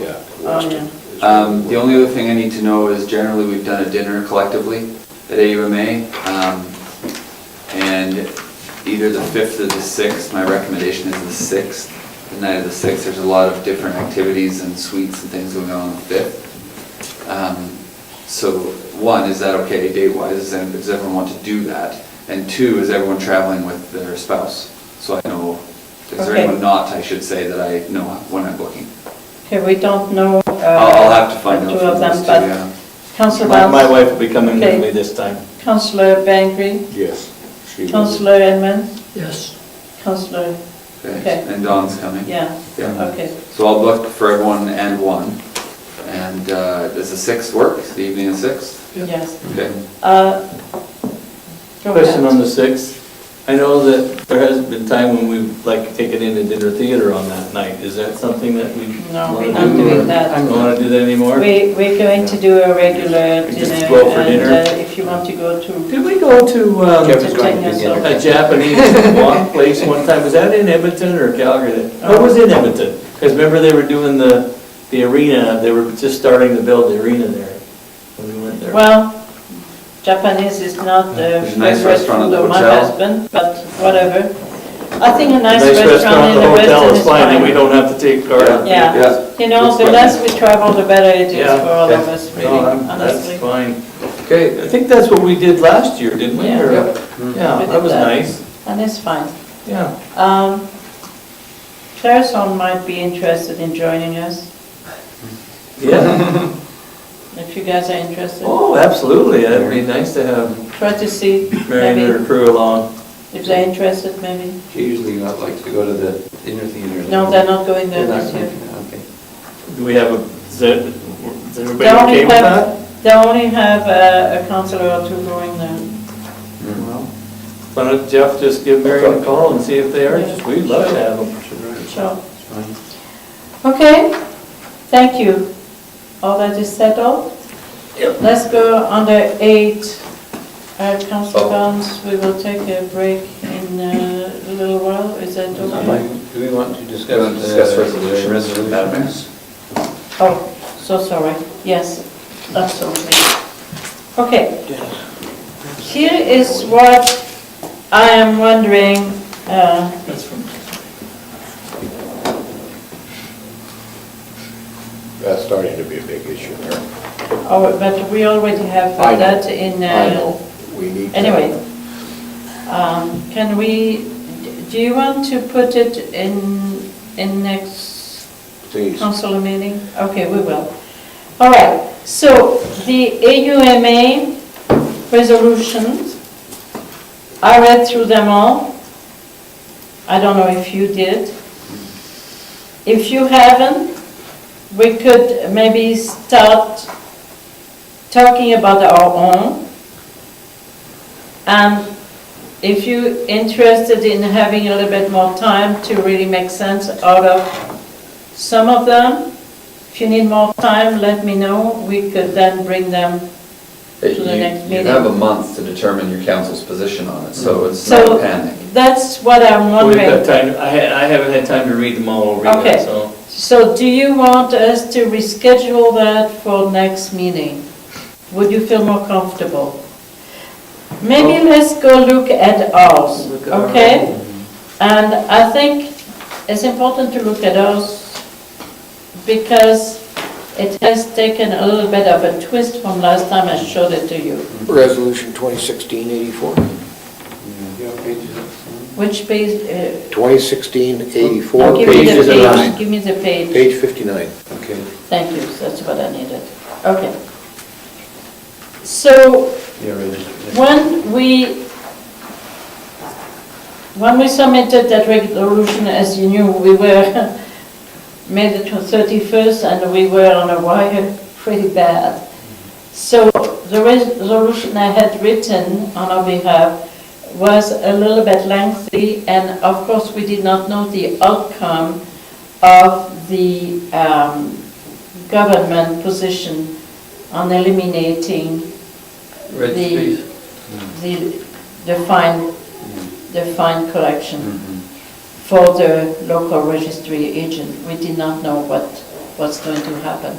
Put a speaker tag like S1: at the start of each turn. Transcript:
S1: Yeah.
S2: Oh, yeah.
S3: Um, The only other thing I need to know is generally, we've done a dinner collectively at AUMA. um, And either the 5th or the 6th, my recommendation is the 6th. The night of the 6th, there's a lot of different activities and suites and things going on on the 5th. Um, So, one, is that okay date-wise? And Does everyone want to do that? And two, is everyone traveling with their spouse? So I know, is there
S2: Okay.
S3: anyone not, I should say, that I know when I'm booking?
S2: Okay, we don't know. uh,
S3: I'll I'll have to find
S2: the
S3: out
S2: Two of
S3: from those
S2: them,
S3: two, yeah.
S2: but Councillor
S4: My, my
S2: Wells,
S4: wife will be coming with
S2: Okay.
S4: me this time.
S2: Councillor Bangery,
S1: Yes. she will.
S2: Councillor Edmund,
S5: Yes.
S2: Councillor,
S3: Okay,
S2: Okay.
S3: and Dawn's coming.
S2: yeah,
S3: Yeah.
S2: okay.
S3: So I'll book for everyone and one. And uh, does the sixth work, the evening of sixth?
S2: Yes.
S3: Okay.
S2: Uh, Go
S4: Question on
S2: ahead.
S4: the 6th. I know that there has been time when we've, like, taken in a dinner theater on that night. Is that something that we
S2: No,
S4: wanna
S2: we're not
S4: do,
S2: doing
S4: or
S2: that.
S4: Don't want to do that anymore?
S2: We, we're going to do a regular
S4: We just
S2: dinner,
S4: go for
S2: and
S4: dinner.
S2: uh, if you want to go to,
S4: Did we go to um,
S2: Kevin's going to dinner.
S4: a Japanese walk place one time? Was that in Edmonton or Calgary? No, it was in Edmonton. Because remember, they were doing the, the arena, they were just starting to build the arena there when we went there.
S2: well, Japanese is not the
S3: There's a nice
S2: favorite
S3: restaurant at
S2: food
S3: the
S2: of my
S3: hotel.
S2: husband, but whatever. I think a nice
S4: Nice
S2: restaurant in the
S4: the hotel
S2: Western
S4: is
S2: is
S4: fine, and we
S2: fine.
S4: don't have to take our.
S2: Yeah. You know,
S3: Looks
S2: the
S3: fine.
S2: less we travel, the better it is
S4: Yeah,
S2: for all of
S3: yeah.
S2: us, really,
S4: No, I'm- That's
S2: honestly.
S4: fine.
S3: Okay.
S4: I think that's what we did last year, didn't we?
S2: Yeah.
S4: Or-
S3: Yep.
S2: We
S4: Yeah, that
S2: did
S4: was
S2: that.
S4: nice,
S2: And it's fine.
S4: yeah.
S2: Um, Clareson might be interested in joining us,
S4: Yeah,
S2: if you guys are interested.
S4: oh, absolutely, that'd be nice to have
S2: Try to see,
S4: Mary and her
S2: maybe,
S4: crew along.
S2: if they're interested, maybe.
S6: She usually not like to go to the dinner theater.
S2: No, they're not going there
S6: They're not
S2: this year.
S6: going, Okay.
S4: Do we have a, is that- is everybody
S2: They only
S4: okay with that?
S2: have, they only have uh, a counselor or two going there.
S4: Well, Mm-hmm. Why don't Jeff just give Mary a call and see if they are,
S2: Yeah.
S4: we'd love to have them.
S2: So,
S6: It's fine.
S2: okay, thank you. All that is settled? Let's go under eight. Uh, Council Barnes, we will take a break in uh, a little while, is that okay?
S6: Do we want to discuss?
S3: Gonna discuss
S6: the
S3: resolutions. Madam Mayor?
S6: Resolutions.
S2: Oh, so sorry, yes, absolutely. Okay. Here is what I am wondering, uh,
S4: That's from
S1: That's starting to be a big issue there.
S2: oh, but we already have
S1: I know.
S2: that in, uh,
S1: I know, we need. to-
S2: anyway. Um, Can we, do you want to put it in, in next
S1: Please.
S2: Council meeting? Okay, we will. All right, so the AUMA resolutions, I read through them all. I don't know if you did. If you haven't, we could maybe start talking about our own. And if you're interested in having a little bit more time to really make sense out of some of them, if you need more time, let me know. We could then bring them.
S3: Hey,
S2: To the next
S3: You you
S2: meeting.
S3: have a month to determine your council's position on it, so it's
S2: So
S3: not panic.
S2: that's what I'm
S4: We've got
S2: wondering.
S4: time, I had, I haven't had time to read them all over
S2: Okay.
S4: yet, so.
S2: So do you want us to reschedule that for next meeting? Would you feel more comfortable? Maybe let's go look at ours,
S4: Oh. Look at our
S2: okay? And I think it's important to look at ours because it has taken a little bit of a twist from last time I showed it to you.
S7: Resolution 2016-84.
S6: Yeah, pages of-
S2: Which page? uh,
S7: 2016-84,
S2: give me
S7: page
S2: the
S7: 59.
S2: Give me the page.
S7: Page 59.
S6: Okay.
S2: Thank you, that's what I needed. Okay. So
S6: Yeah, right.
S2: when we, when we submitted that resolution, as you knew, we were, made it to 31st, and we were on a wire pretty bad. So the resolution I had written on our behalf was a little bit lengthy, and of course, we did not know the outcome of the um, government position on eliminating
S4: Red
S2: The-
S4: space.
S2: the, the fine, the fine collection for the local registry agent. We did not know what what's going to happen.